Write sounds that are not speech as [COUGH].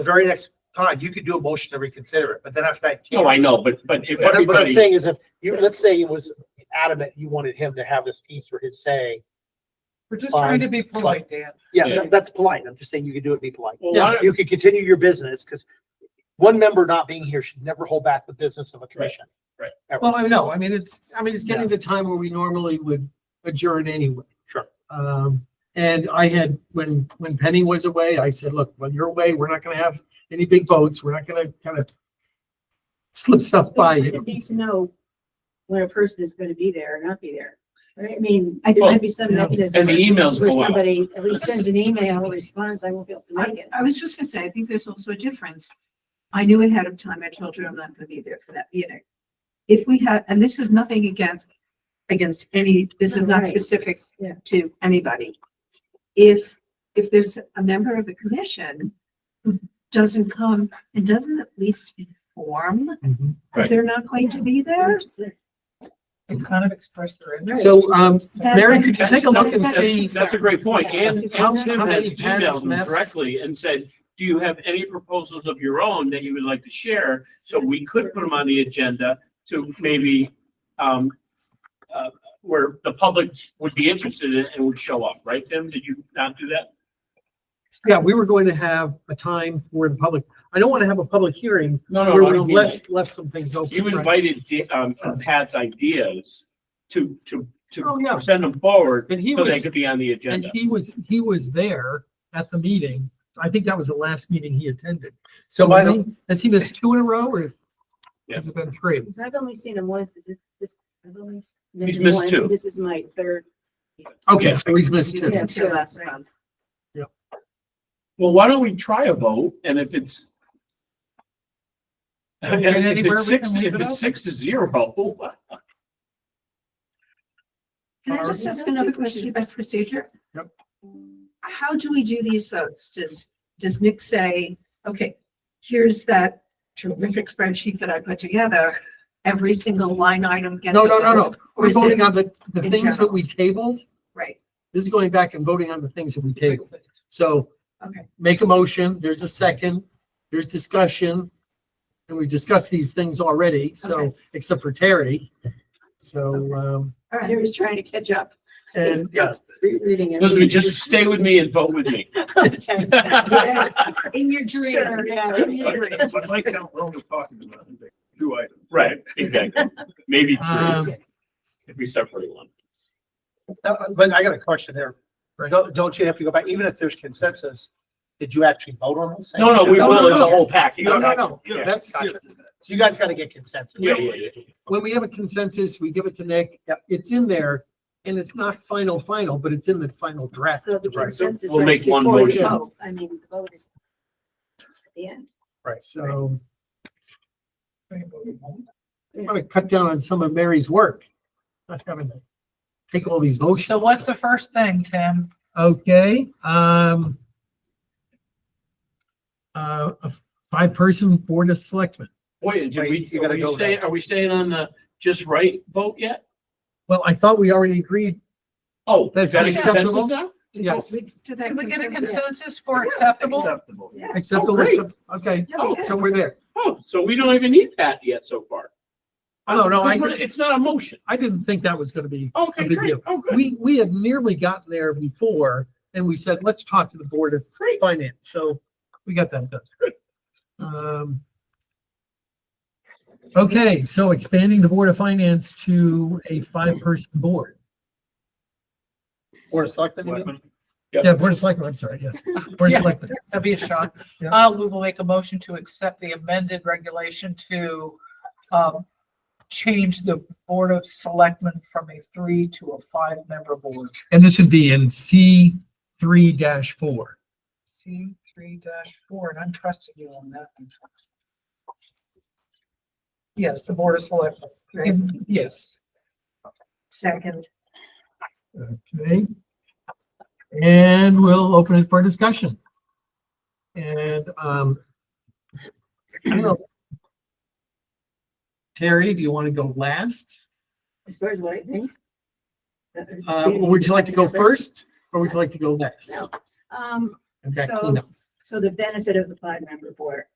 the very next time, you could do a motion to reconsider it, but then after that. you No, can't. I know, but, but if What I'm, what I'm everybody, saying is if you, let's say it was adamant, you wanted him to have this piece for his say. We're just Fine. trying to be polite, Dan. Yeah, Yeah. that- that's polite. I'm just saying you could do it, be polite. Well, why don't- You could continue your business because one member not being here should never hold back the business of a commission. right. Ever. Well, I know, I mean, it's, I mean, it's getting the time where we normally would adjourn anyway. Sure. Um, and I had, when, when Penny was away, I said, look, when you're away, we're not gonna have any big votes, we're not gonna kind of slip stuff by I you. Need to know when a person is gonna be there or not be there, right? I mean, I do. there might be some Well, and mechanism the emails where go out. somebody at least sends an email, responds, I won't be able to make it. I was just gonna say, I think there's also a difference. I knew ahead of time, I told you I'm not gonna be there for that meeting. If we had, and this is nothing against, against any, this is not Right. specific Yeah. to anybody. If, if there's a member of the commission who doesn't come and doesn't at least inform Mhm. Right. that they're not going to be there, And kind of express their interest. So, um, Mary, could you take a look and That's- see? That's that's a great point. And, How- and Tim how has many panels, emailed them maps? directly and said, do you have any proposals of your own that you would like to share? So we could put them on the agenda to maybe, um, uh, where the public would be interested in it and would show up, right, Tim? Did you not do that? Yeah, we were going to have a time for the public, I don't want to have a public hearing No, where we no, no. left, left some things open. You right? invited, Di- um, Pat's ideas to, to, Oh, yeah. to send them forward And he so they was- could be on the And agenda. he was, he was there at the meeting. I think that was the last meeting he attended. So Why has he, has he missed two in a row or has it been three? Because I've only seen him once, is it this? I've only met He's him missed once, two. This is my third. Okay, so he's missed two. Yeah, Yes, sure, yes, right. um, Well, why don't we try a vote and if it's. And Okay, if anywhere it's we six, can if leave it it's open. six to zero, Can I just Barbara? ask another question about procedure? Yep. How do we do these votes? Does, does Nick say, okay, here's that terrific spreadsheet that I put together, every single line item gets. No, no, no, no. Or We're is it- voting on the, the in things that general? we tabled. Right, This is going back and voting on the things that we tabled. So okay. make a motion, there's a second, there's discussion. And we discussed these things already, so, Okay. except for Terry. So, um, All [LAUGHS] I right, was trying to catch up, and Yeah, rereading it. listen, just stay with me and vote with me. [LAUGHS] Okay. Yeah, In your Sure, dreams. yeah. In your dreams. Like how Rome was talking about, I think, two items. Right, exactly. Maybe Um, three, if we separate one. That- uh, but I got a question there. Right. Don't, don't you have to go back, even if there's consensus, did you actually vote on this? No, no, we No, will no, as a no. whole package. No, no, no, Yeah, that's, Gotcha. So you guys got to get consensus. Yeah, yeah, yeah. when we have a consensus, we give it to Nick. Yep. It's in there and it's not final, final, but it's in the final draft. So the Right, so consensus. we'll is make one before we motion. vote. I mean, the vote is at the end. Right, so. I'm Yeah. gonna cut down on some of Mary's work. Not having to take all these motions. So what's the first thing, Tim? Okay, um. Uh, a five-person board of selectmen. Wait, did Wait, we, you are gotta we go staying, now. are we staying on the just right vote yet? Well, I thought we already agreed. Oh, is That's that a acceptable? consensus now? Yes. Can we get a consensus for acceptable? Acceptable. Yeah. Acceptable. great. Okay, Yeah, we did. so we're there. Oh, so we don't even need that yet so far. No, Oh, no, I- It's not a motion. I didn't think that was gonna be Okay, No big great. deal. Oh, good. we, we had nearly gotten there before and we said, let's talk to the Board of Great. Finance. So we got that done. Um, Okay, so expanding the Board of Finance to a five-person board. Or selected. Yep. Yeah, Board of Selectmen, I'm sorry, yes. Board of Yeah. Selectmen. That'd be a shock. Yeah. Uh, we will make a motion to accept the amended regulation to, um, change the Board of Selectmen from a three to a five-member board. And this would be in C three dash four. C three four, and I'm trusting you on that. one. Yes, the Board of Selectmen. Um, Yes. Second. Okay. And we'll open it for discussion. And, um, I don't know. Terry, do you want to go last? As far as what I think. Uh, would you like to go first or would you like to go next? No. Um, I've got So- cleanup. So the benefit of the five member board.